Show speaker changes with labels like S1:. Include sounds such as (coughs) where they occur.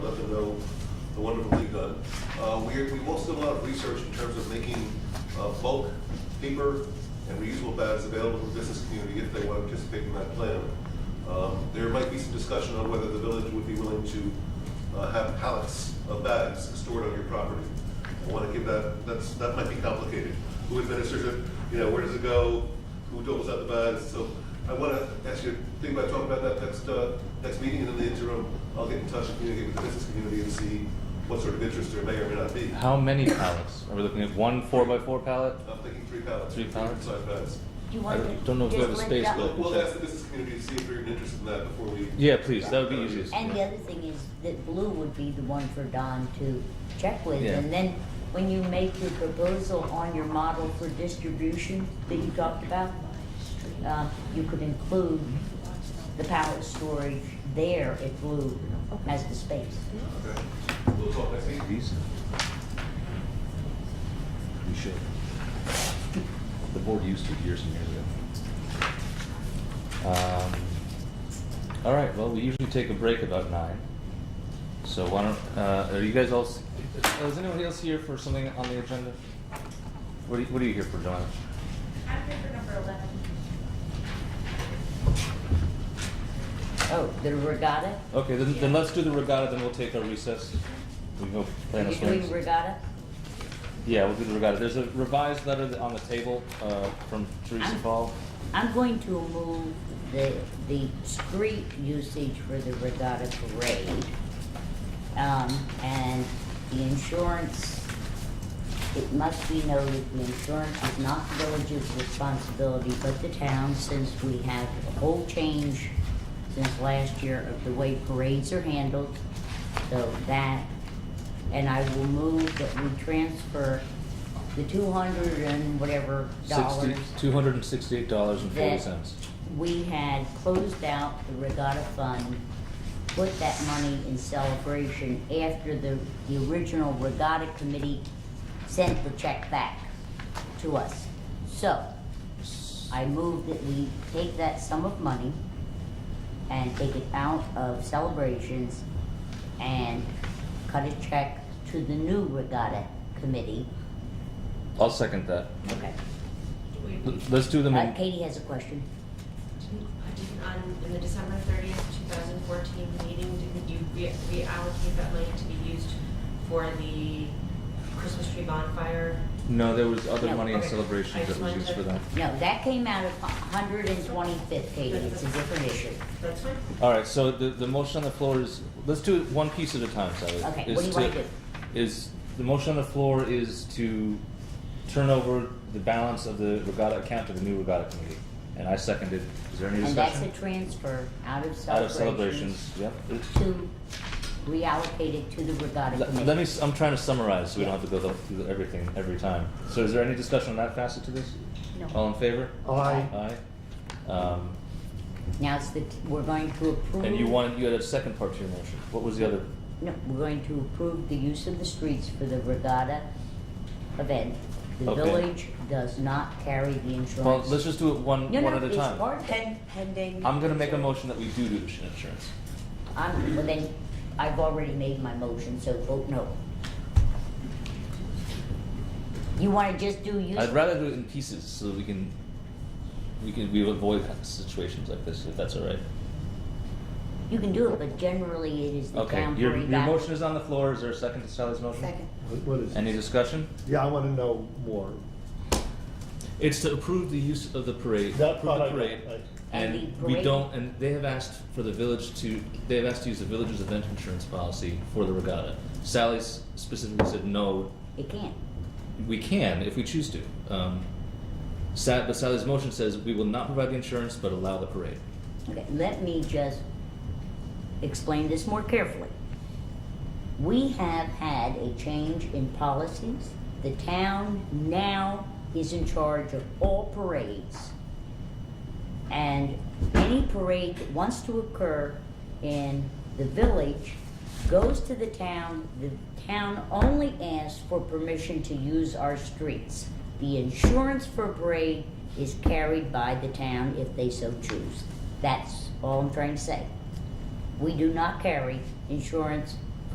S1: wonderfully done. Uh, We are- we've also done a lot of research in terms of making uh, bulk, paper, and reusable bags available to the business community if they want to participate in that plan. Um, There might be some discussion on whether the village would be willing to uh, have pallets of bags stored on your property. I want to give that, that's, that might be complicated. Who administers it, you know, where does it go, who doles out the bags? So I want to ask you, to think about talking about that next, uh, next meeting, and in the interim, I'll get in touch and communicate with the business community and see what sort of interest there may or may not be.
S2: How many pallets? Are we looking at one four by four pallet?
S1: I'm thinking three pallets.
S2: Three pallets?
S1: Side bags.
S3: You
S2: I
S3: want to.
S2: don't know if we
S3: just
S2: have a
S3: link
S2: space,
S3: up.
S2: but-
S1: We'll, we'll ask the business community to see if they're even interested in that before we.
S2: Yeah, please, that would be easiest.
S3: And the other thing is that blue would be the one for Don to check with.
S2: Yeah.
S3: And then when you make your proposal on your model for distribution that you talked about, uh, you could include the pallet storage there if blue has the space.
S1: Okay. We'll talk next meeting.
S4: These? We should. The board used to years and years ago.
S2: Um, all right, well, we usually take a break about nine. So why don't, uh, are you guys all, s- uh, is anyone else here for something on the agenda? What are you, what are you here for, John?
S5: I'm here for number eleven.
S3: Oh, the regatta?
S2: Okay, then, then let's do the regatta, then we'll take our recess. We hope
S3: Are
S2: Planos
S3: you doing
S2: wins.
S3: regatta?
S2: Yeah, we'll do the regatta. There's a revised letter that- on the table, uh, from Teresa
S3: (coughs) I'm-
S2: Paul.
S3: I'm going to move the, the street usage for the regatta parade. Um, and the insurance, it must be noted, the insurance is not the village's responsibility, but the town, since we have a whole change since last year of the way parades are handled. So that, and I will move that we transfer the two hundred and whatever
S2: Sixty,
S3: dollars
S2: two hundred and sixty-eight dollars and forty
S3: that
S2: cents.
S3: we had closed out the regatta fund, put that money in celebration after the, the original regatta committee sent the check back to us. So, I move that we take that sum of money and take it out of celebrations and cut a check to the new regatta committee.
S2: I'll second that.
S3: Okay.
S5: Do we-
S2: L- Let's do them
S3: Uh,
S2: in,
S3: Katie has a question.
S5: On, in the December thirtieth, two thousand fourteen meeting, didn't you re- reallocate that money to be used for the Christmas tree bonfire?
S2: no, there was other
S3: No,
S2: money in
S5: okay. I
S2: celebrations that
S5: just
S2: was
S5: wanted
S2: used
S5: to-
S2: for that.
S3: No, that came out of 125th, Katie, it's a different issue.
S5: That's fine.
S2: All right, so the, the motion on the floor is, let's do it one piece at a time, Sally.
S3: Okay,
S2: Is
S3: what do you wanna
S2: to-
S3: do?
S2: Is, the motion on the floor is to turn over the balance of the regatta account to the new regatta committee. And I seconded, is there any
S3: And that's a
S2: discussion?
S3: transfer out of
S2: Out of
S3: celebrations
S2: celebrations, yep.
S3: to reallocate it to the regatta
S2: Let let me,
S3: committee.
S2: s- I'm trying to summarize, so we
S3: Yeah.
S2: don't have to go through everything every time. So is there any discussion on that facet to this? All in favor? Aye. Um,
S3: Now it's the, we're going to approve.
S2: And you wanted, you had a second part to your motion. What was the other?
S3: No, we're going to approve the use of the streets for the regatta event. The
S2: Okay.
S3: village does not carry the insurance.
S2: Well, let's just do it one,
S3: No,
S2: one
S3: no,
S2: at a
S3: it's
S2: time.
S3: part-
S6: Pending.
S2: I'm gonna make a motion that we do do the sh- insurance.
S3: I'm, well then, I've already made my motion, so vote no. You wanna just do use?
S2: I'd rather do it in pieces so that we can, we can, we avoid situations like this, if that's all right.
S3: You can do it, but generally it is the
S2: Okay,
S3: town
S2: your,
S3: board
S2: your
S3: that.
S2: motion is on the floor. Is there a second to Sally's motion?
S6: Second.
S7: What- What is
S2: Any
S7: it?
S2: discussion?
S7: Yeah, I want to know more.
S2: It's to approve the use of the parade,
S7: That
S2: approve the
S7: part I-
S2: parade.
S7: I-
S2: And
S3: And the
S2: we
S3: parade.
S2: don't, and they have asked for the village to, they have asked to use the village's event insurance policy for the regatta. Sally s- specifically said, no,
S3: It can't.
S2: We can if we choose to. Um, Sa- but Sally's motion says we will not provide the insurance but allow the parade.
S3: Okay, let me just explain this more carefully. We have had a change in policies. The town now is in charge of all parades. And any parade that wants to occur in the village goes to the town. The town only asks for permission to use our streets. The insurance for parade is carried by the town if they so choose. That's all I'm trying to say. We do not carry insurance